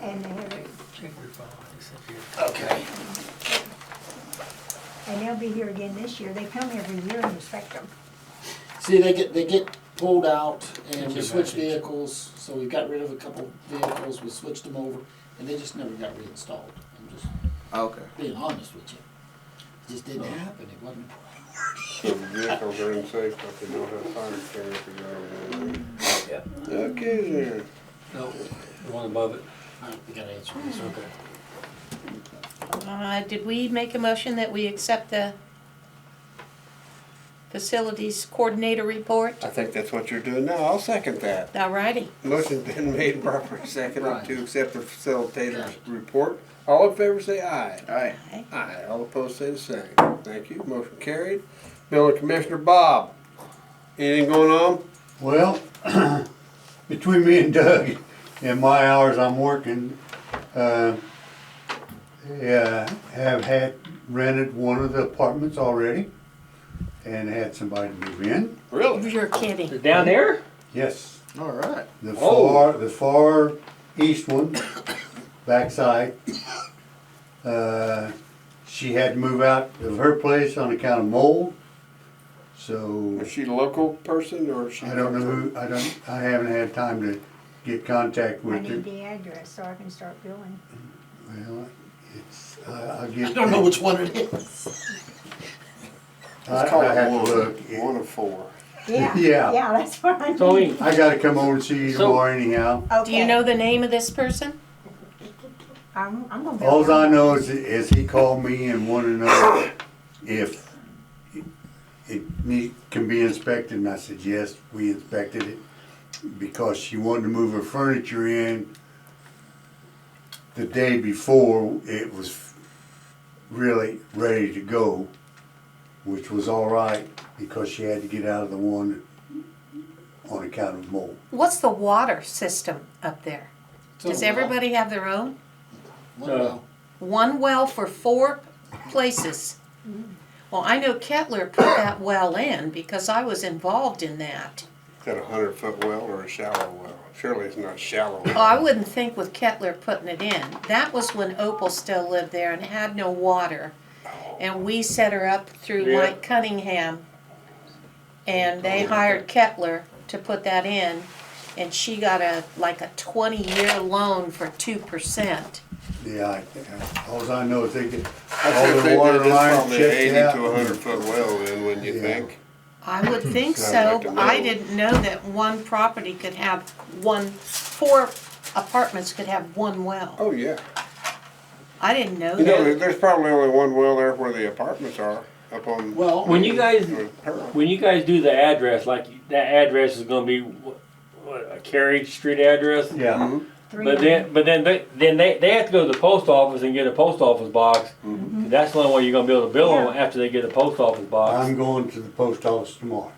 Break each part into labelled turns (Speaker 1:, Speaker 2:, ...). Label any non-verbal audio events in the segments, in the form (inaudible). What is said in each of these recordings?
Speaker 1: and they're,
Speaker 2: Check your phone, it's up here.
Speaker 3: Okay.
Speaker 1: and they'll be here again this year. They come every year and inspect them.
Speaker 3: See, they get, they get pulled out and we
Speaker 2: Get
Speaker 3: switch
Speaker 2: back in.
Speaker 3: vehicles, so we got rid of a couple vehicles, we switched them over, and they just never got reinstalled. I'm just
Speaker 4: Okay.
Speaker 3: being honest with you. It just didn't happen, it wasn't.
Speaker 5: So the vehicles are in safe, but they don't have fire extinguishers on them. Okay there.
Speaker 2: No, the one above it.
Speaker 3: All right, we gotta answer this.
Speaker 2: Okay.
Speaker 6: Uh, Did we make a motion that we accept the facilities coordinator report?
Speaker 5: I think that's what you're doing now. I'll second that.
Speaker 6: All righty.
Speaker 5: Motion's been made properly seconded to accept the facilitator's
Speaker 3: Right.
Speaker 5: report. All in favor say aye.
Speaker 4: Aye.
Speaker 6: Aye.
Speaker 5: Aye. All opposed say the same. Thank you. Motion carried. Building Commissioner Bob. Anything going on?
Speaker 7: Well, (clears throat) between me and Doug, in my hours I'm working, uh, yeah, have had rented one of the apartments already and had somebody move in.
Speaker 5: Really?
Speaker 6: You're kidding.
Speaker 2: Down there?
Speaker 7: Yes,
Speaker 4: All right.
Speaker 7: the
Speaker 2: Oh.
Speaker 7: far, the far east one, (coughs) backside. Uh, she had to move out of her place on account of mold, so.
Speaker 5: Is she a local person or is she?
Speaker 7: I don't know who, I don't, I haven't had time to get contact
Speaker 1: I
Speaker 7: with
Speaker 1: need
Speaker 7: her.
Speaker 1: the address so I can start
Speaker 7: (laughs)
Speaker 1: billing.
Speaker 7: Well, it's, I, I'll
Speaker 3: I
Speaker 7: get.
Speaker 3: don't know which one it is.
Speaker 7: I,
Speaker 5: It's called
Speaker 7: I have
Speaker 5: one.
Speaker 7: to look.
Speaker 5: One of four.
Speaker 1: Yeah,
Speaker 7: Yeah.
Speaker 1: yeah, that's what I need.
Speaker 2: Tony,
Speaker 7: I gotta come over and see you
Speaker 2: So-
Speaker 7: tomorrow anyhow.
Speaker 6: Do you
Speaker 1: Okay.
Speaker 6: know the name of this person?
Speaker 1: I'm, I'm gonna. bill
Speaker 7: Alls
Speaker 1: her.
Speaker 7: I know is, is he called me and wanted to know if it need, can be inspected, and I said, yes, we inspected it. Because she wanted to move her furniture in the day before it was really ready to go, which was all right, because she had to get out of the one on account of mold.
Speaker 6: What's the water system up there?
Speaker 3: So,
Speaker 6: Does everybody have their own?
Speaker 3: One well.
Speaker 6: One well for four places. Mm. Well, I know Kettler put that well in because I was involved in that.
Speaker 5: Is that a hundred foot well or a shallow well? Surely it's not shallow.
Speaker 6: Oh, I wouldn't think with Kettler putting it in. That was when Opal still lived there and had no water. And we set her up through
Speaker 5: Yeah.
Speaker 6: Mike Cunningham. And they hired Kettler to put that in. And she got a, like a twenty-year loan for two percent.
Speaker 7: Yeah, I, alls I know is they get,
Speaker 5: I
Speaker 7: all
Speaker 5: think
Speaker 7: the
Speaker 5: they
Speaker 7: water
Speaker 5: did this
Speaker 7: lines
Speaker 5: probably eighty
Speaker 7: checked out.
Speaker 5: to a hundred foot well then, wouldn't you
Speaker 7: Yeah.
Speaker 5: think?
Speaker 6: I would think
Speaker 5: Hmm. Sounds
Speaker 6: so.
Speaker 5: like a
Speaker 6: I
Speaker 5: loan.
Speaker 6: didn't know that one property could have one, four apartments could have one well.
Speaker 5: Oh, yeah.
Speaker 6: I didn't know
Speaker 5: You know, there-
Speaker 6: that.
Speaker 5: there's probably only one well there where the apartments are, up on.
Speaker 3: Well,
Speaker 8: When you guys,
Speaker 5: on Pearl.
Speaker 8: when you guys do the address, like that address is gonna be what, what, a Carriage Street address?
Speaker 7: Yeah,
Speaker 1: Three
Speaker 8: But then, but then they, then they, they have to go to the post office and get a post office box.
Speaker 7: Mm-hmm.
Speaker 8: That's the only way you're gonna be able to bill them after they get a post office box.
Speaker 7: I'm going to the post office tomorrow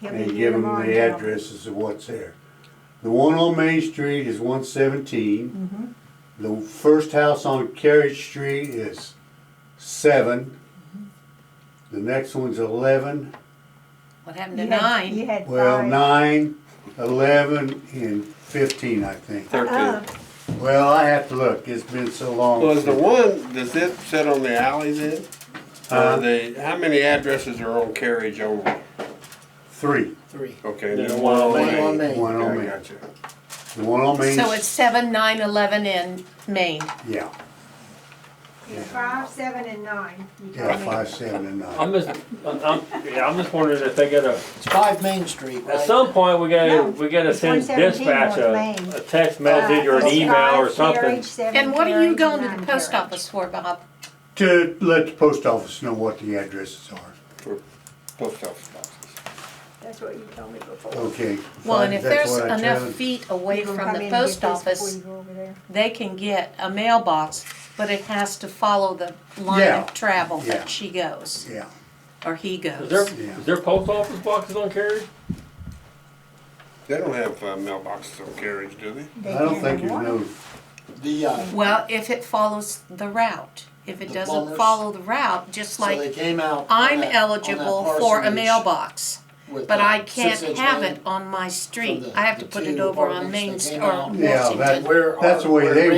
Speaker 1: He'll be
Speaker 7: and
Speaker 1: here
Speaker 7: give them
Speaker 1: tomorrow
Speaker 7: the
Speaker 1: now.
Speaker 7: addresses of what's there. The one on Main Street is one seventeen. The first house on Carriage Street is seven. The next one's eleven,
Speaker 6: What happened to
Speaker 1: You had- You
Speaker 6: nine?
Speaker 1: had five.
Speaker 7: well, nine, eleven, and fifteen, I think.
Speaker 1: Uh,
Speaker 7: Well, I have to look, it's been so long.
Speaker 5: Well, is the
Speaker 7: since-
Speaker 5: one, does it sit on the alley then? Or
Speaker 7: Uh,
Speaker 5: the, how many addresses are on carriage only?
Speaker 7: Three,
Speaker 3: Three.
Speaker 5: Okay, and
Speaker 8: Yeah,
Speaker 5: then
Speaker 8: one
Speaker 5: one
Speaker 8: on
Speaker 5: on
Speaker 3: One on
Speaker 5: Main.
Speaker 3: Main.
Speaker 7: one on
Speaker 5: I
Speaker 7: Main.
Speaker 5: gotcha.
Speaker 7: The one on Main,
Speaker 6: So it's seven, nine, eleven in Maine.
Speaker 7: yeah,
Speaker 1: it's Five, seven, and nine. uh, You
Speaker 7: yeah,
Speaker 1: told me.
Speaker 7: five, seven, and nine.
Speaker 8: I'm just, I'm, I'm- yeah, I'm just wondering if they got a,
Speaker 3: It's five Main Street,
Speaker 8: at
Speaker 3: right?
Speaker 8: some point, we
Speaker 1: No,
Speaker 8: gotta, we gotta
Speaker 1: it's
Speaker 8: send
Speaker 1: 117
Speaker 8: dispatch
Speaker 1: North Main.
Speaker 8: a, a text message
Speaker 1: Uh,
Speaker 8: or an
Speaker 1: it's
Speaker 8: email or
Speaker 1: five,
Speaker 8: something.
Speaker 1: carriage, seven
Speaker 6: And what are you
Speaker 1: carriage,
Speaker 6: going to
Speaker 1: nine
Speaker 6: the post
Speaker 1: carriage.
Speaker 6: office for, Bob?
Speaker 7: To let the post office know what the addresses are.
Speaker 5: For post office boxes.
Speaker 1: That's what you told me before.
Speaker 7: Okay.
Speaker 6: Well,
Speaker 7: fine,
Speaker 6: and if
Speaker 7: that's
Speaker 6: there's
Speaker 7: what I
Speaker 6: enough
Speaker 7: tell-
Speaker 6: feet away
Speaker 1: You gonna
Speaker 6: from
Speaker 1: come
Speaker 6: the
Speaker 1: in and get
Speaker 6: post
Speaker 1: this
Speaker 6: office,
Speaker 1: Before you go over there.
Speaker 6: they can get a mailbox, but it has to follow the line
Speaker 7: Yeah,
Speaker 6: of travel
Speaker 7: yeah.
Speaker 6: that she goes,
Speaker 7: Yeah,
Speaker 6: or he
Speaker 8: Is there,
Speaker 6: goes.
Speaker 7: Yeah.
Speaker 8: is there post office boxes on Carriage?
Speaker 5: They don't have uh, mailboxes on carriage, do they?
Speaker 1: They
Speaker 7: I don't
Speaker 1: can
Speaker 7: think
Speaker 1: in
Speaker 7: you
Speaker 1: the morning.
Speaker 7: know,
Speaker 3: The, uh,
Speaker 6: Well, if it follows the route. If it
Speaker 3: The
Speaker 6: doesn't
Speaker 3: bonus.
Speaker 6: follow the route, just
Speaker 3: so they
Speaker 6: like
Speaker 3: came out. on
Speaker 6: I'm
Speaker 3: that- on that
Speaker 6: eligible for a
Speaker 3: parsonage
Speaker 6: mailbox,
Speaker 3: with
Speaker 6: but
Speaker 3: the
Speaker 6: I can't
Speaker 3: six-inch
Speaker 6: have
Speaker 3: main.
Speaker 6: it on my street.
Speaker 3: the-
Speaker 6: I have to
Speaker 3: the
Speaker 6: put it
Speaker 3: two
Speaker 6: over on
Speaker 3: apartments
Speaker 6: Main
Speaker 3: that
Speaker 6: Street
Speaker 3: came
Speaker 6: or
Speaker 3: out.
Speaker 6: Washington.
Speaker 7: yeah, that,
Speaker 3: Where
Speaker 7: that's the
Speaker 3: are-
Speaker 7: way
Speaker 3: where
Speaker 7: they